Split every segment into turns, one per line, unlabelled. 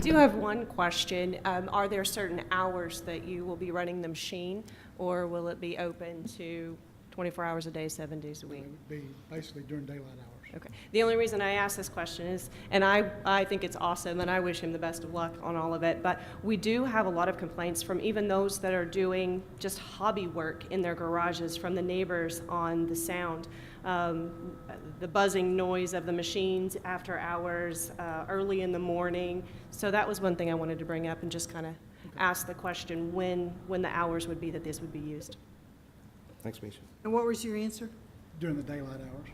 do have one question. Um, Are there certain hours that you will be running the machine, or will it be open to 24 hours a day, seven days a week?
be basically during daylight hours.
Okay. The only reason I ask this question is, and I, I think it's awesome, and I wish him the best of luck on all of it, but we do have a lot of complaints from even those that are doing just hobby work in their garages from the neighbors on the sound. Um, the buzzing noise of the machines after hours, uh, early in the morning. So that was one thing I wanted to bring up and just kind of ask the question when, when the hours would be that this would be used.
Thanks, Misha.
And what was your answer?
During the daylight hours.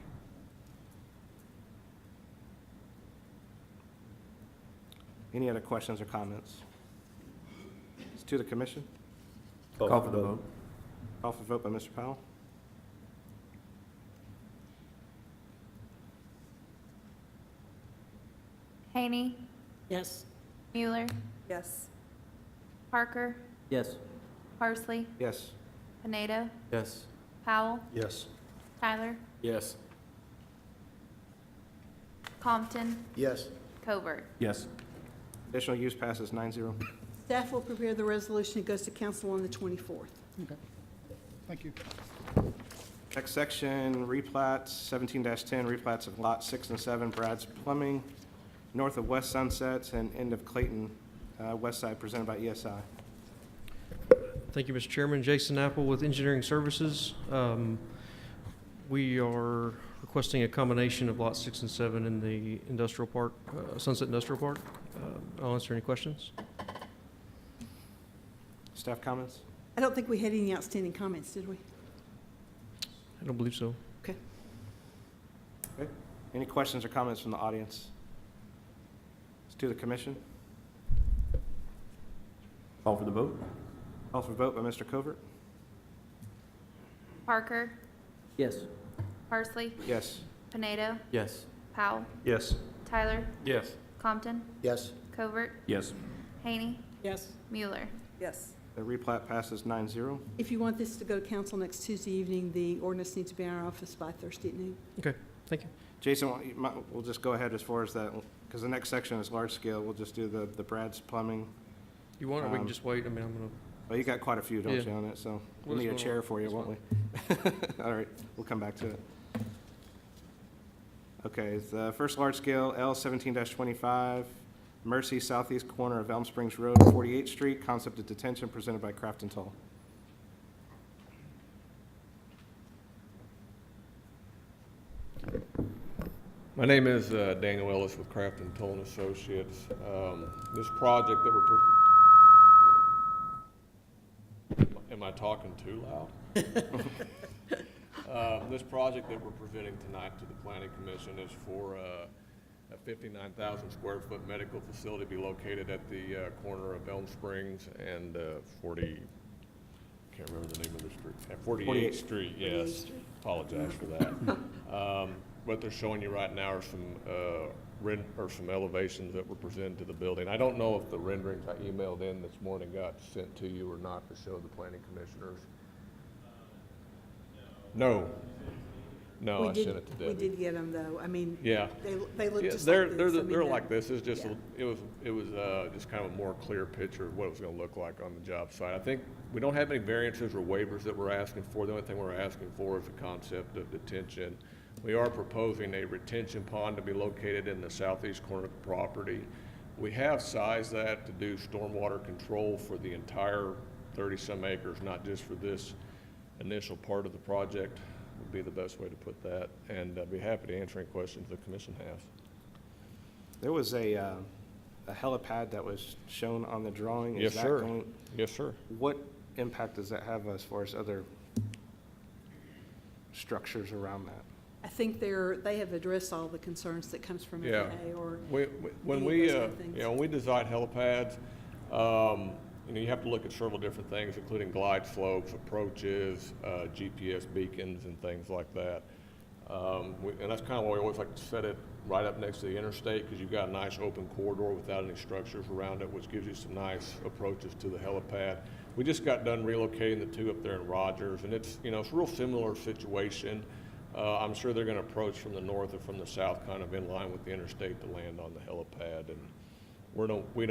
Any other questions or comments? It's to the commission.
Call for the vote.
Call for vote by Mr. Powell.
Haney,
Yes.
Mueller,
Yes.
Parker,
Yes.
Parsley,
Yes.
Pineda,
Yes.
Powell,
Yes.
Tyler,
Yes.
Compton,
Yes.
Covert.
Yes.
Additional use passes nine zero.
Staff will prepare the resolution. It goes to council on the 24th.
Okay. Thank you.
Next section, replats, seventeen ten, replats of lot six and seven, Brad's Plumbing, north of West Sunsets and end of Clayton, uh, West Side, presented by ESI.
Thank you, Mr. Chairman. Jason Apple with Engineering Services. Um, We are requesting a combination of Lot 6 and 7 in the industrial park, uh, Sunset Industrial Park. Uh, I'll answer any questions.
Staff comments?
I don't think we had any outstanding comments, did we?
I don't believe so.
Any questions or comments from the audience? It's to the commission.
Call for the vote.
Call for vote by Mr. Covert.
Parker,
Yes.
Parsley,
Yes.
Pineda,
Yes.
Powell,
Yes.
Tyler,
Yes.
Compton,
Yes.
Covert,
Yes.
Haney,
Yes.
Mueller.
Yes.
The replat passes nine zero.
If you want this to go to council next Tuesday evening, the ordinance needs to be in our office by Thursday at noon.
Thank you.
Jason, why don't you- might- we'll just go ahead as far as that, because the next section is large scale. We'll just do the, the Brad's plumbing.
You want, it, we
Um,
can just wait. I mean, I'm going to
Well, you got quite a few, don't
Yeah.
you, on it, so we'll
We'll
need a
just go-
chair for you,
that's
won't we? All right, we'll come back to it. Okay, the first large scale, L seventeen twenty-five, Mercy southeast corner of Elm Springs Road, Forty-Eighth Street, concept of detention presented by Craft and Toll.
My name is uh, Daniel Ellis with Craft and Toll and Associates. Um, This project that we're, pur- am I talking too loud? Um, This project that we're presenting tonight to the planning commission is for uh, a 59,000 square foot medical facility to be located at the uh, corner of Elm Springs and uh, 40, can't remember the name of the street, at
48.
48th Street, yes. Apologize for that. Um, What they're showing you right now are some uh, ren, or some elevations that were presented to the building. I don't know if the renderings I emailed in this morning got sent to you or not to show the planning commissioners. No. No,
We
Oh, I
did-
sent it to
We
Debbie.
did get them, though. I mean,
Yeah.
they, they look
Yeah,
just like this.
they're, they're,
I mean,
they're
the-
like this, it's just,
yeah.
a- it was, it was, uh, just kind of a more clear picture of what it was gonna look like on the job site. I think, we don't have any variances or waivers that we're asking for, the only thing we're asking for is the concept of detention. We are proposing a retention pond to be located in the southeast corner of the property. We have sized that to do stormwater control for the entire thirty-some acres, not just for this initial part of the project, would be the best way to put that, and I'd be happy to answer any questions the commission has.
There was a, uh, a helipad that was shown on the drawing. Is
Yes,
that
sir.
going-
Yes, sir.
What impact does that have as far as other structures around that?
I think they're, they have addressed all the concerns that comes from
Yeah.
FAA or
We- we- When
Any of
we,
those
uh,
kind of things.
you know, when we design helipads, um, you know, you have to look at several different things, including glide slopes, approaches, uh, GPS beacons, and things like that. Um, we- And that's kind of why we always like to set it right up next to the interstate, because you've got a nice open corridor without any structures around it, which gives you some nice approaches to the helipad. We just got done relocating the two up there in Rogers, and it's, you know, it's a real similar situation. Uh, I'm sure they're going to approach from the north or from the south, kind of in line with the interstate to land on the helipad, and we're no, we don't